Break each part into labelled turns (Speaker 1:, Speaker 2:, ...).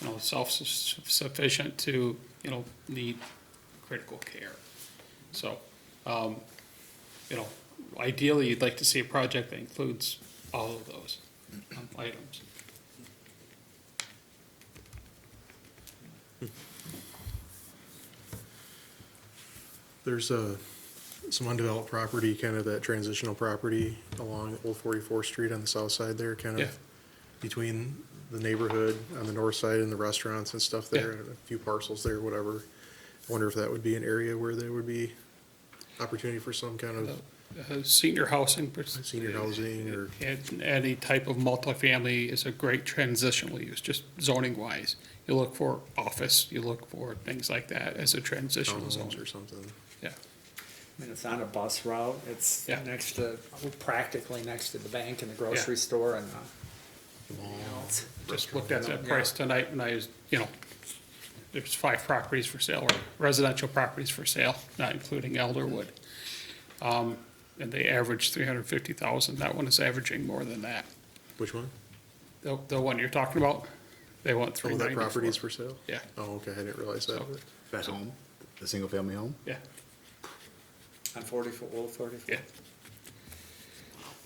Speaker 1: you know, self-sufficient to, you know, need critical care. So, um, you know, ideally, you'd like to see a project that includes all of those um, items.
Speaker 2: There's a, some undeveloped property, kind of that transitional property along Old Forty-fourth Street on the south side there, kind
Speaker 1: Yeah.
Speaker 2: of between the neighborhood on the north side and the restaurants and stuff there,
Speaker 1: Yeah.
Speaker 2: and a few parcels there, whatever. I wonder if that would be an area where there would be opportunity for some kind of
Speaker 1: Uh, Senior housing. pers-
Speaker 2: senior housing or,
Speaker 1: And any type of multifamily is a great transitional use, just zoning wise. You look for office, you look for things like that as a transitional zone.
Speaker 2: townhomes or something.
Speaker 1: Yeah,
Speaker 3: I mean, it's on a bus route, it's
Speaker 1: Yeah.
Speaker 3: next to, practically next to the bank and the grocery store and, uh, you know, it's-
Speaker 1: just looked at that price tonight and I was, you know, there's five properties for sale or residential properties for sale, not including Elderwood. Um, and they average three hundred fifty thousand. That one is averaging more than that.
Speaker 2: Which one?
Speaker 1: Oh, The, the one you're talking about, they want three
Speaker 2: Oh, that
Speaker 1: ninety-four.
Speaker 2: property is for sale?
Speaker 1: Yeah,
Speaker 2: Oh, okay, I didn't realize that.
Speaker 1: So-
Speaker 4: That home, the single-family home?
Speaker 1: yeah,
Speaker 3: on forty-four, old forty-four.
Speaker 1: yeah.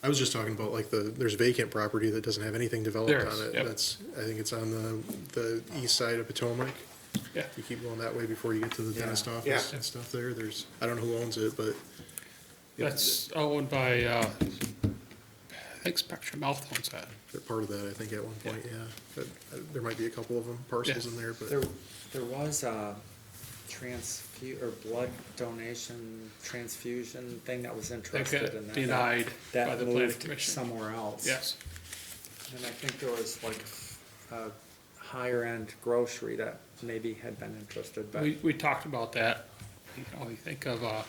Speaker 2: I was just talking about like the, there's vacant property that doesn't have anything developed
Speaker 1: There is,
Speaker 2: on it.
Speaker 1: yep.
Speaker 2: That's, I think it's on the, the east side of Potomac.
Speaker 1: Yeah.
Speaker 2: You keep going that way before you get to the
Speaker 3: Yeah.
Speaker 2: dentist office
Speaker 3: Yeah.
Speaker 2: and stuff there. There's, I don't know who owns it, but
Speaker 1: That's owned by, uh, I think Spectrum Health owns that.
Speaker 2: they're part of that, I think, at one point, yeah. But uh, there might be a couple of them parcels
Speaker 1: Yeah.
Speaker 2: in there,
Speaker 3: There,
Speaker 2: but
Speaker 3: there was a transfu, or blood donation transfusion thing that was
Speaker 1: They
Speaker 3: interested in
Speaker 1: got
Speaker 3: that.
Speaker 1: denied by
Speaker 3: That
Speaker 1: the planning
Speaker 3: moved
Speaker 1: commission.
Speaker 3: somewhere else.
Speaker 1: Yes,
Speaker 3: And I think there was like a higher-end grocery that maybe had been interested, but.
Speaker 1: we, we talked about that. You can only think of, uh,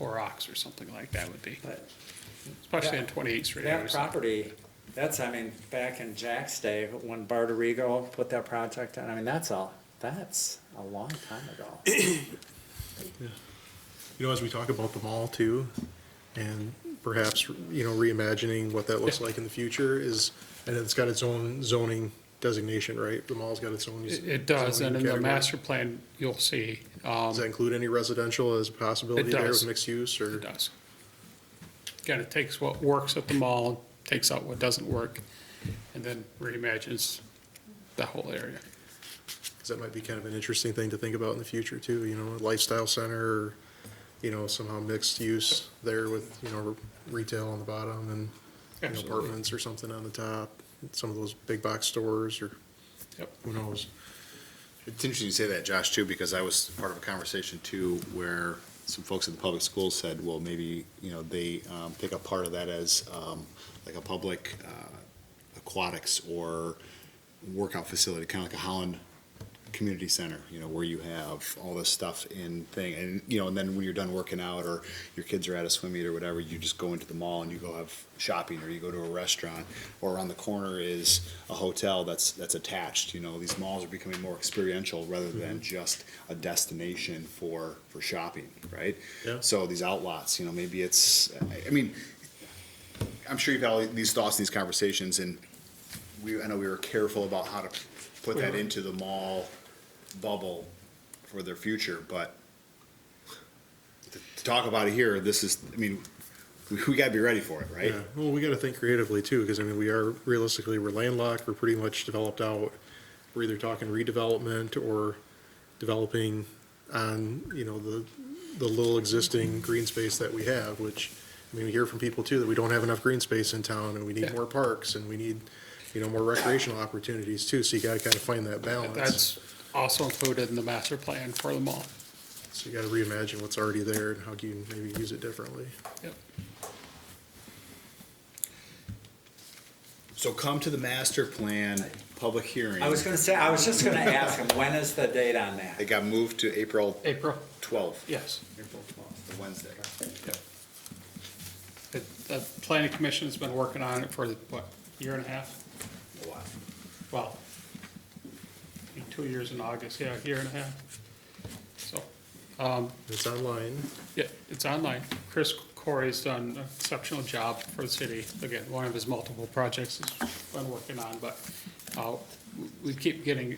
Speaker 1: Horrocks or something like that would be,
Speaker 3: but
Speaker 1: especially
Speaker 3: that-
Speaker 1: in Twenty-Eighth Street. I
Speaker 3: That
Speaker 1: was-
Speaker 3: property, that's, I mean, back in Jack's day, when Barterigo put that project on, I mean, that's a, that's a long time ago.
Speaker 2: you know, as we talk about the mall too, and perhaps, you know, reimagining what that looks
Speaker 1: Yeah.
Speaker 2: like in the future is, and it's got its own zoning designation, right? The mall's got its own.
Speaker 1: It, it does,
Speaker 2: zoning
Speaker 1: and in the
Speaker 2: category.
Speaker 1: master plan, you'll see,
Speaker 2: Does
Speaker 1: um,
Speaker 2: that include any residential as a possibility
Speaker 1: It
Speaker 2: there
Speaker 1: does.
Speaker 2: with mixed use or?
Speaker 1: it does. Kind of takes what works at the mall, takes out what doesn't work, and then reimagines the whole area.
Speaker 2: 'Cause that might be kind of an interesting thing to think about in the future too, you know, a lifestyle center, or, you know, somehow mixed use there with, you know, retail on the bottom and you know,
Speaker 1: Absolutely.
Speaker 2: apartments or something on the top, some of those big box stores or
Speaker 1: Yep.
Speaker 2: who knows.
Speaker 4: It's interesting you say that, Josh, too, because I was part of a conversation, too, where some folks at the public school said, well, maybe, you know, they um, pick up part of that as um, like a public uh, aquatics or workout facility, kind of like a Holland community center, you know, where you have all this stuff in thing, and, you know, and then when you're done working out, or your kids are at a swim meet or whatever, you just go into the mall and you go have shopping, or you go to a restaurant, or around the corner is a hotel that's, that's attached, you know, these malls are becoming more experiential rather than just a destination for, for shopping, right?
Speaker 2: Yeah.
Speaker 4: So these outlots, you know, maybe it's, I- I mean, I'm sure you've had all these thoughts, these conversations, and we, I know we were careful about how to put that into the mall bubble for their future, but to- to talk about it here, this is, I mean, we, we gotta be ready for it, right?
Speaker 2: Yeah, well, we gotta think creatively too, because I mean, we are realistically, we're landlocked, we're pretty much developed out. We're either talking redevelopment or developing on, you know, the, the little existing green space that we have, which, I mean, we hear from people too that we don't have enough green space in town and we
Speaker 1: Yeah.
Speaker 2: need more parks and we need, you know, more recreational opportunities too, so you gotta kind of find that balance.
Speaker 1: That's also included in the master plan for the mall.
Speaker 2: So you gotta reimagine what's already there and how can you maybe use it differently.
Speaker 1: Yep.
Speaker 4: So come to the master plan, public hearing.
Speaker 3: I was gonna say, I was just gonna ask him, when is the date on that?
Speaker 4: It got moved to April
Speaker 1: April?
Speaker 4: twelfth,
Speaker 1: Yes.
Speaker 3: April twelfth.
Speaker 4: the Wednesday.
Speaker 1: The, the planning commission's been working on it for, what, a year and a half?
Speaker 4: A lot.
Speaker 1: Well, two years in August, yeah, a year and a half. So, um,
Speaker 2: It's online.
Speaker 1: yeah, it's online. Chris Corey's done an exceptional job for the city. Again, one of his multiple projects he's been working on, but, uh, we- we keep getting